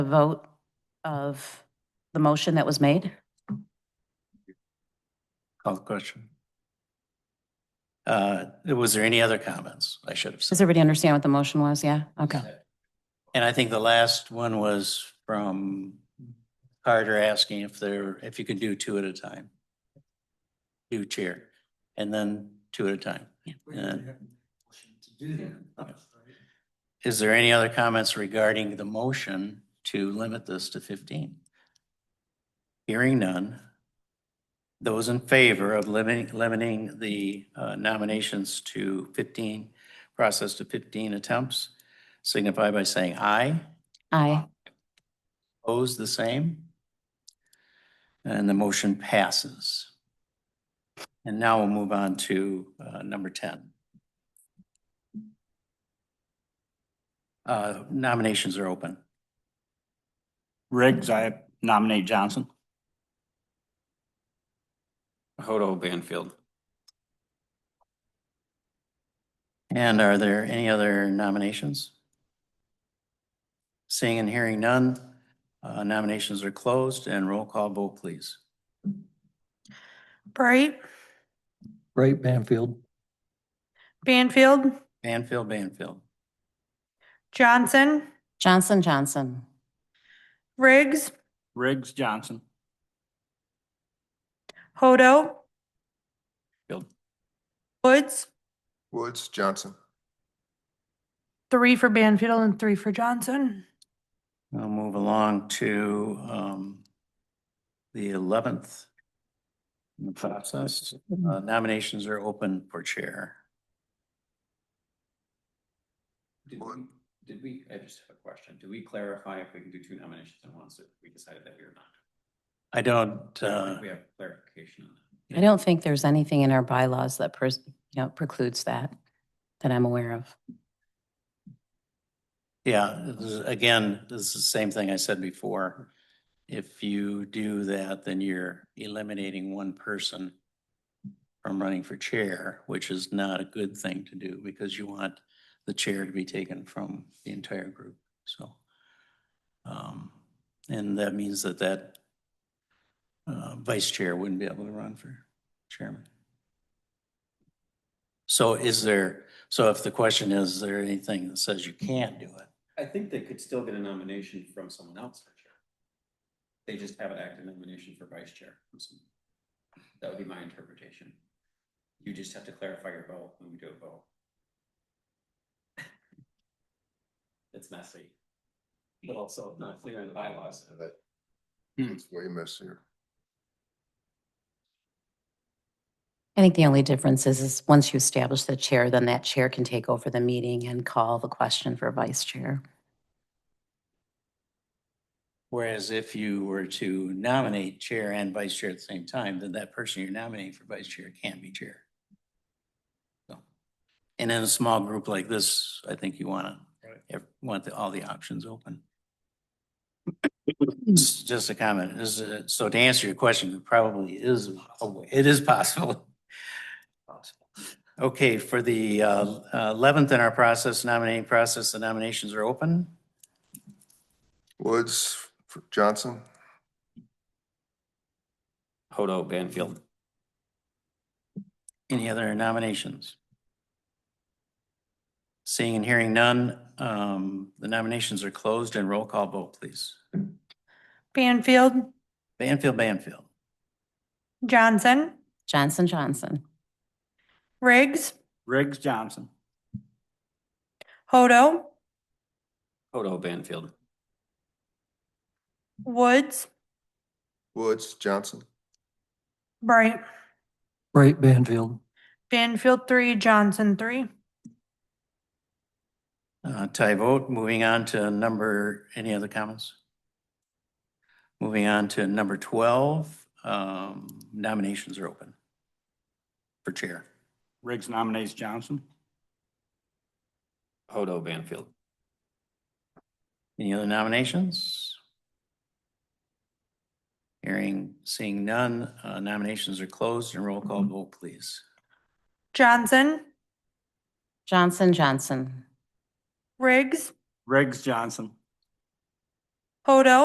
the vote of the motion that was made? Call the question. Uh, was there any other comments I should have said? Does everybody understand what the motion was? Yeah, okay. And I think the last one was from Carter asking if there, if you could do two at a time. Do chair and then two at a time. Yeah. Is there any other comments regarding the motion to limit this to fifteen? Hearing none. Those in favor of limiting, limiting the uh, nominations to fifteen, process to fifteen attempts, signify by saying aye. Aye. Opposed, the same? And the motion passes. And now we'll move on to uh, number 10. Uh, Nominations are open. Riggs, I nominate Johnson. Hodo Banfield. And are there any other nominations? Seeing and hearing none, uh, nominations are closed and roll call vote, please. Bright, Right, Banfield. Banfield, Banfield, Banfield. Johnson, Johnson, Johnson. Riggs, Riggs, Johnson. Hodo, Field. Woods, Woods, Johnson. three for Banfield and three for Johnson. We'll move along to um, the 11th in the process. Uh, Nominations are open for chair. Did we, did we, I just have a question. Did we clarify if we can do two nominations at once if we decided that we were not? I don't, uh, We have clarification on that. I don't think there's anything in our bylaws that pres- you know, precludes that, that I'm aware of. yeah, this is- again, this is the same thing I said before. If you do that, then you're eliminating one person from running for chair, which is not a good thing to do because you want the chair to be taken from the entire group, so. um, And that means that that uh, vice chair wouldn't be able to run for chairman. So is there, so if the question is, is there anything that says you can't do it? I think they could still get a nomination from someone else for chair. They just have an active nomination for vice chair. from someone. That would be my interpretation. You just have to clarify your vote when we do a vote. It's messy. But also not clear in the bylaws. It's way messier. I think the only difference is, is once you establish the chair, then that chair can take over the meeting and call the question for vice chair. Whereas if you were to nominate chair and vice chair at the same time, then that person you're nominating for vice chair can't be chair. So, And in a small group like this, I think you want to, want the- all the options open. Just just a comment, This is- so to answer your question, it probably is, a way- it is possible. Okay, for the uh, eleventh in our process, nominating process, the nominations are open. Woods, for Johnson. Hodo Banfield. Any other nominations? Seeing and hearing none, um, the nominations are closed and roll call vote, please. Banfield, Banfield, Banfield, Johnson, Johnson, Johnson. Riggs, Riggs, Johnson. Hodo, Hodo Banfield. Woods, Woods, Johnson. Bright, Right, Banfield. Banfield, three, Johnson, three. uh, tie vote. Moving on to number, any other comments? Moving on to number twelve, um, nominations are open for chair. Riggs nominates Johnson. Hodo Banfield. Any other nominations? Hearing, seeing none, uh, nominations are closed and roll call vote, please. Johnson, Johnson, Johnson. Riggs, Riggs, Johnson. Hodo.